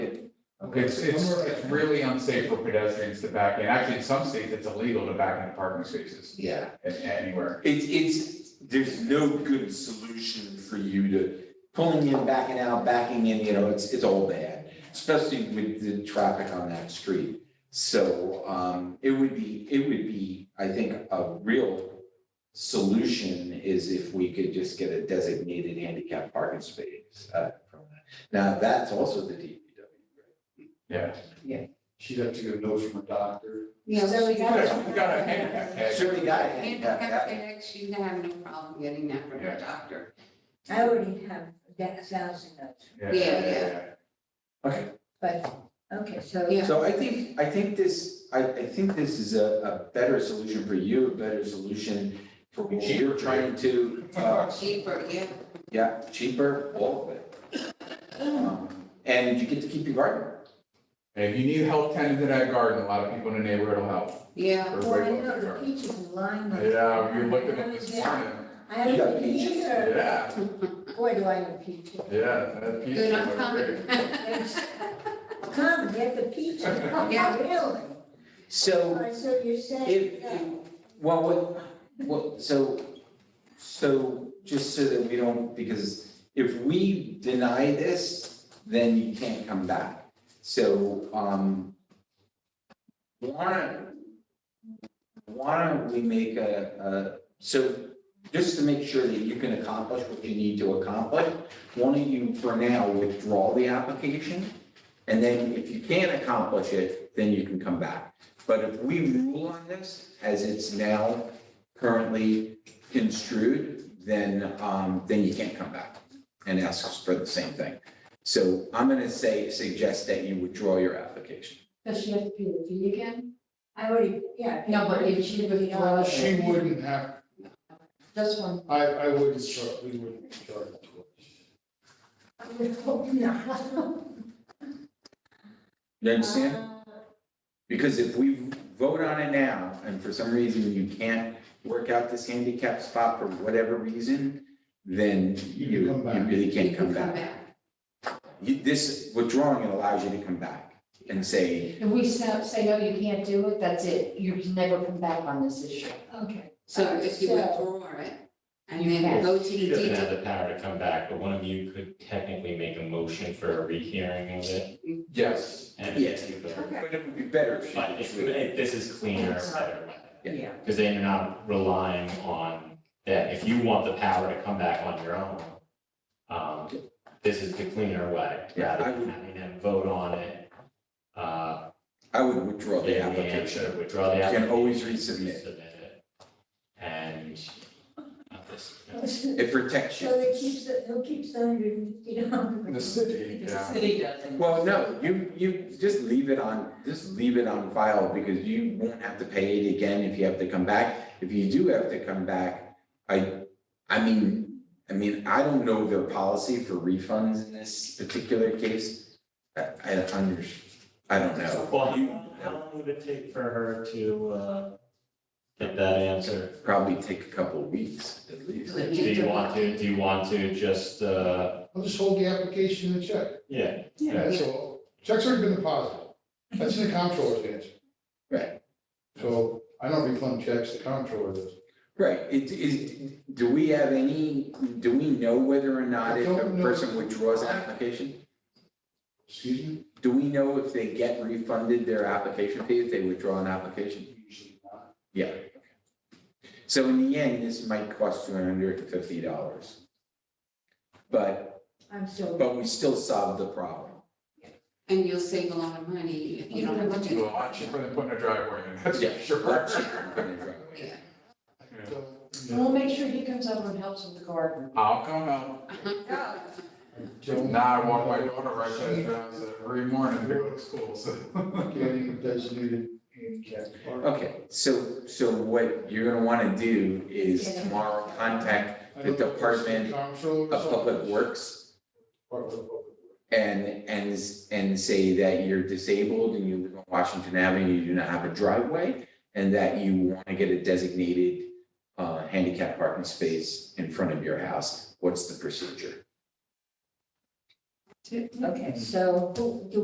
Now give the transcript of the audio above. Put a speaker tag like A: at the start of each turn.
A: It's, it's, it's really unsafe for pedestrians to back in. Actually, in some states, it's illegal to back into parking spaces
B: Yeah,
A: a- anywhere.
C: It's, it's, there's no good solution for you to pulling in, backing out, backing in, you know, it's, it's all bad, especially with the traffic on that street. So, um, it would be, it would be, I think, a real solution is if we could just get a designated handicap parking space, uh, from that. Now, that's also the DPW.
A: Yeah.
D: She'd have to get a note from a doctor.
E: Yeah, so we got.
A: Yeah, we got a handicap
C: right?
A: tag.
C: Sure, we got a handicap,
E: Handicap
C: tag.
E: tag, she didn't have no problem getting that from her doctor.
F: I already have that a thousand notes,
A: Yeah,
E: Yeah,
C: okay.
F: but, okay, so.
E: Yeah.
C: So I think, I think this, I, I think this is a, a better solution for you, a better solution for what you're trying to, uh,
E: Cheaper, yeah.
C: yeah, cheaper, all of it. Um, And you get to keep your garden.
A: And if you need help tending to that garden, a lot of people in the neighborhood will help.
E: Yeah,
A: Everybody
F: Well, I
A: loves their
F: know the
A: garden.
F: peaches and lime.
A: Yeah, you're looking at this morning.
F: I haven't
C: You got
F: been
C: peaches?
F: here.
A: Yeah,
F: Boy, do I have peaches.
A: yeah. that piece is
E: good, I'm coming.
F: Come, get the peaches.
E: Yeah.
F: Really?
C: So
F: Oh, So you're
C: if,
F: saying, yeah.
C: well, what, what, so, so just so that we don't, because if we deny this, then you can't come back. So, um, wanna, why don't we make a, a, so just to make sure that you can accomplish what you need to accomplish, why don't you for now withdraw the application? And then if you can't accomplish it, then you can come back. But if we rule on this as it's now currently construed, then, um, then you can't come back and ask us for the same thing. So I'm gonna say, suggest that you withdraw your application.
G: Does she have to pay the fee again?
F: I already, yeah.
G: No, but if she would-
F: Yeah.
D: She wouldn't have,
G: This one,
D: I, I wouldn't, char- we wouldn't charge it to her.
F: I would hope not.
C: You understand? Because if we vote on it now, and for some reason you can't work out this handicap spot for whatever reason, then
D: You
C: you,
D: can come
C: you
D: back.
C: really can't
E: You
C: come back. You, this withdrawing it allows you to come back and say,
G: if we sa- say, no, you can't do it, that's it, you can never come back on this issue.
F: Okay.
E: So if you
F: So-
E: withdraw it and
G: You
E: then
G: can.
E: go to the
H: She doesn't have
E: detail.
H: the power to come back, but one of you could technically make a motion for a rehearing of it.
A: Yes,
H: and-
C: yes, but it would be better if
H: But if,
C: you.
H: if this is cleaner, better,
F: Yeah.
H: because then you're not relying on that. If you want the power to come back on your own, um, this is the cleaner way,
C: Yeah, I
H: rather than
C: would-
H: having them vote on it. Uh,
C: I would withdraw the
H: give me an
C: application.
H: answer, Withdraw the
C: You
H: application.
C: can always resubmit.
H: it, And, not this, no.
C: It protects
F: So they
C: you.
F: keeps, the- who keeps the hundred and fifty dollars?
A: the city, yeah.
E: city doesn't.
C: Well, no, you, you just leave it on, just leave it on file because you won't have to pay it again if you have to come back. If you do have to come back, I, I mean, I mean, I don't know their policy for refunds in this particular case. I, I don't under, I don't know.
H: Well, how long, how long would it take for her to, uh, get that answer?
C: Probably take a couple of weeks at least.
H: Do you want to, do you want to just, uh,
D: I'll just hold the application and check.
H: yeah,
D: Yeah, so checks already been deposited. That's in the comptroller's answer.
C: Right.
D: So I don't refund checks, the comptroller does.
C: Right, it is, do we have any, do we know whether or not if
D: I
C: a
D: don't know.
C: person withdraws an application?
D: Excuse me?
C: Do we know if they get refunded their application fee if they withdraw an application?
D: Usually not.
C: Yeah. So in the end, this might cost two hundred and fifty dollars. But,
F: I'm still.
C: but we still solve the problem.
E: And you'll save a lot of money if you don't have to
A: It's a
E: do
A: lot cheaper than putting a driveway in, that's
C: Yeah,
A: for sure.
C: lot cheaper than putting it right away.
E: it.
D: I don't
G: And
D: know.
G: we'll make sure he comes over and helps with the garden.
A: I'll come out.
E: Yeah.
D: Don't-
A: Now I walk my daughter right to the house every morning, to go to school, so.
D: Getting designated handicap. parking.
C: Okay, so, so what you're gonna wanna do is
F: Yeah.
C: tomorrow contact
D: I don't
C: the
D: know if it's the
C: Department
D: comptroller's
C: a Public
D: office.
C: Works
D: Department of Public Works.
C: and, and, s- and say that you're disabled and you live on Washington Avenue, you do not have a driveway, and that you wanna get a designated, uh, handicap parking space in front of your house. What's the procedure?
F: Mm-hmm. Okay, so who, do